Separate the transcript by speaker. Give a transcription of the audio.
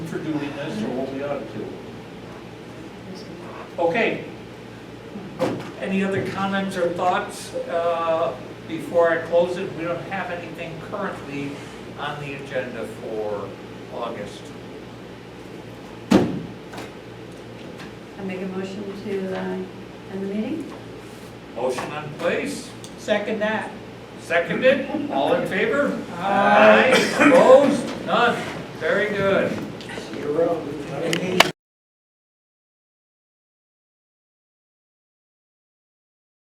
Speaker 1: doing this or what we ought to do. Okay. Any other comments or thoughts uh, before I close it? We don't have anything currently on the agenda for August.
Speaker 2: I make a motion to uh, end the meeting?
Speaker 1: Motion on place,
Speaker 3: Second that.
Speaker 1: seconded, all in favor?
Speaker 3: Aye.
Speaker 1: Opposed?